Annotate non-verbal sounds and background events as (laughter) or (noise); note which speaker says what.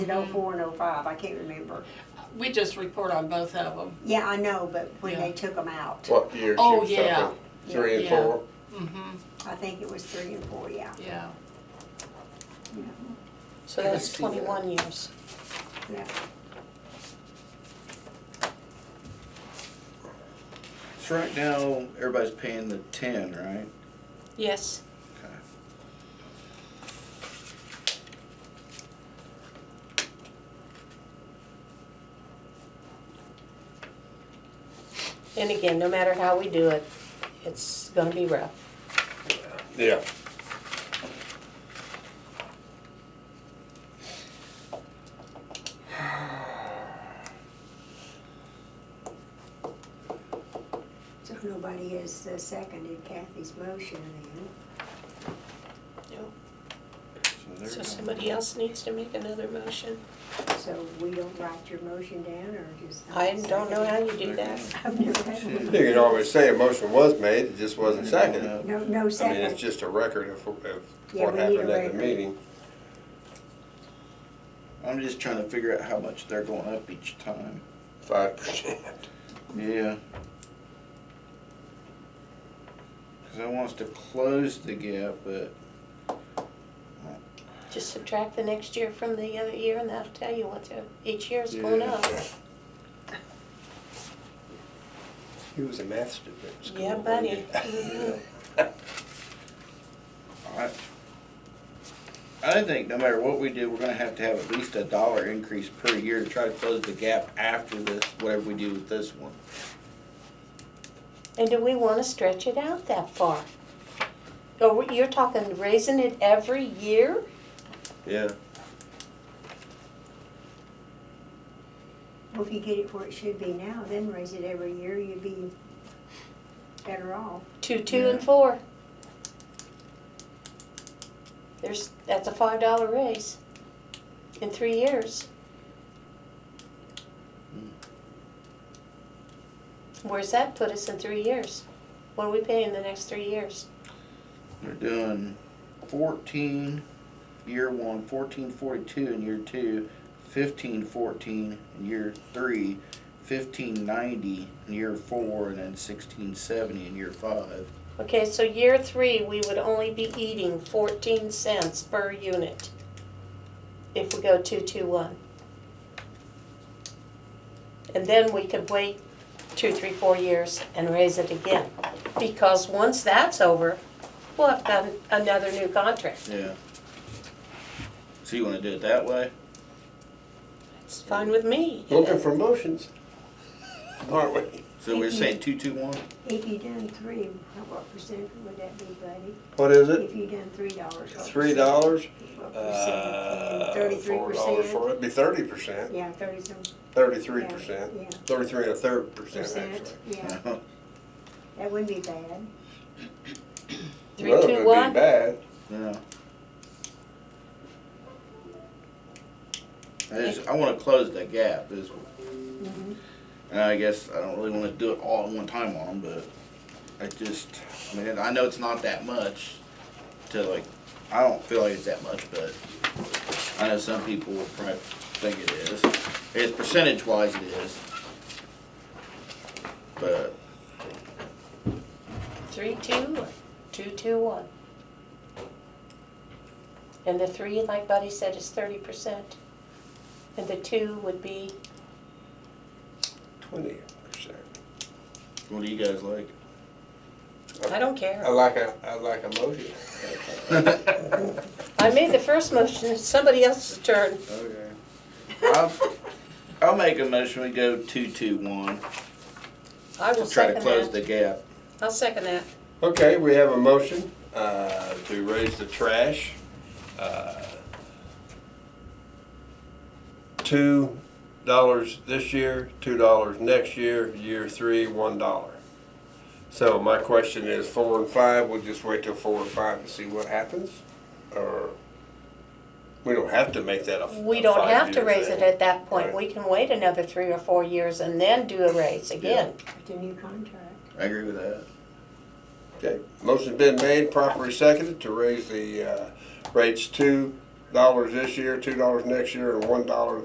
Speaker 1: Is it oh four and oh five? I can't remember.
Speaker 2: We just report on both of them.
Speaker 1: Yeah, I know, but when they
Speaker 2: Yeah.
Speaker 1: took them out,
Speaker 3: What year?
Speaker 2: Oh,
Speaker 3: she was
Speaker 2: yeah.
Speaker 3: talking? Three and
Speaker 2: Yeah.
Speaker 3: four?
Speaker 2: Mm-hmm,
Speaker 1: I think it was three and four, yeah.
Speaker 2: yeah.
Speaker 4: So
Speaker 3: I can
Speaker 4: that's
Speaker 3: see that.
Speaker 4: twenty-one years.
Speaker 1: Yeah.
Speaker 5: So right now, everybody's paying the ten, right?
Speaker 4: Yes,
Speaker 5: Okay.
Speaker 4: and again, no matter how we do it, it's gonna be rough.
Speaker 3: Yeah.
Speaker 1: So nobody has uh, seconded Kathy's motion then.
Speaker 5: there you
Speaker 4: So
Speaker 5: go.
Speaker 4: somebody else needs to make another motion.
Speaker 1: So we don't write your motion down or just?
Speaker 4: I don't know how you do
Speaker 5: There you
Speaker 4: that.
Speaker 5: go.
Speaker 1: I've never had
Speaker 3: You
Speaker 1: one.
Speaker 3: can always say a motion was made, it just wasn't seconded.
Speaker 1: No, no
Speaker 3: I mean, it's
Speaker 1: second.
Speaker 3: just a record of, of
Speaker 1: Yeah,
Speaker 3: what
Speaker 1: we need a
Speaker 3: happened at the
Speaker 1: record.
Speaker 3: meeting.
Speaker 5: I'm just trying to figure out how much they're going up each time.
Speaker 3: Five percent.
Speaker 5: Yeah. Cause I want us to close the gap, but
Speaker 4: Just subtract the next year from the other year and that'll tell you what the, each year's going
Speaker 5: Yeah.
Speaker 4: up.
Speaker 3: He was a math student at school.
Speaker 4: Yeah,
Speaker 3: wasn't
Speaker 4: buddy.
Speaker 3: he?
Speaker 4: Mhm.
Speaker 5: I, I think no matter what we do, we're gonna have to have at least a dollar increase per year to try to close the gap after this, whatever we do with this one.
Speaker 4: And do we wanna stretch it out that far? Or we- you're talking raising it every year?
Speaker 3: Yeah,
Speaker 1: Well, if you get it where it should be now, then raise it every year, you'd be better off.
Speaker 4: Two, two and
Speaker 5: Yeah.
Speaker 4: four. There's, that's a five dollar raise in three years. Where's that put us in three years? What are we paying the next three years?
Speaker 5: We're doing fourteen, year one, fourteen forty-two in year two, fifteen fourteen in year three, fifteen ninety in year four, and then sixteen seventy in year five.
Speaker 4: Okay, so year three, we would only be eating fourteen cents per unit if we go two, two, one. And then we could wait two, three, four years and raise it again. Because once that's over, we'll have done another new contract.
Speaker 5: Yeah. So you wanna do it that way?
Speaker 4: It's fine with me.
Speaker 3: looking for motions, aren't we?
Speaker 5: So we're saying two, two, one?
Speaker 1: If you done three, how- what percent would that be, buddy?
Speaker 3: What is it?
Speaker 1: If you done three dollars. what
Speaker 3: Three
Speaker 1: percent?
Speaker 3: dollars?
Speaker 1: What
Speaker 3: Uh,
Speaker 1: percent? Thirty-three
Speaker 3: Four dollars for
Speaker 1: percent?
Speaker 3: it, be thirty percent,
Speaker 1: Yeah, thirty-some.
Speaker 3: thirty-three
Speaker 1: yeah,
Speaker 3: percent,
Speaker 1: Yeah,
Speaker 3: thirty-three and a third percent
Speaker 1: percent,
Speaker 3: actually.
Speaker 1: yeah. That wouldn't be bad.
Speaker 4: Three,
Speaker 3: None of it
Speaker 4: two,
Speaker 3: be
Speaker 4: one.
Speaker 3: Bad.
Speaker 5: (laughs) Yeah. I just, I wanna close that gap is,
Speaker 1: Mhm.
Speaker 5: and I guess I don't really wanna do it all at one time on them, but I just, I mean, I know it's not that much to like, I don't feel like it's that much, but I know some people will probably think it is. It's percentage wise it is. But,
Speaker 4: Three, two, or two, two, one. And the three, like Buddy said, is thirty percent. And the two would be,
Speaker 3: Twenty percent.
Speaker 5: what do you guys like?
Speaker 4: I don't care.
Speaker 3: I like a, I like a motion. (laughs)
Speaker 4: I made the first motion, it's somebody else's turn.
Speaker 3: Okay.
Speaker 5: I'll, I'll make a motion, we go two, two, one,
Speaker 4: I will
Speaker 5: to try to
Speaker 4: second
Speaker 5: close the
Speaker 4: that.
Speaker 5: gap.
Speaker 4: I'll second that.
Speaker 3: Okay, we have a motion uh, to raise the trash. uh, Two dollars this year, two dollars next year, year three, one dollar. So my question is four and five, we'll just wait till four and five and see what happens? Or, we don't have to make that a.
Speaker 4: We
Speaker 3: a
Speaker 4: don't have to
Speaker 3: five-year
Speaker 4: raise it
Speaker 3: thing.
Speaker 4: at that point,
Speaker 3: Right.
Speaker 4: we can wait another three or four years and then do a raise again.
Speaker 1: It's a new contract.
Speaker 5: I agree with that.
Speaker 3: Okay, motion's been made, properly seconded to raise the uh, rates two, dollars this year, two dollars next year, and one dollar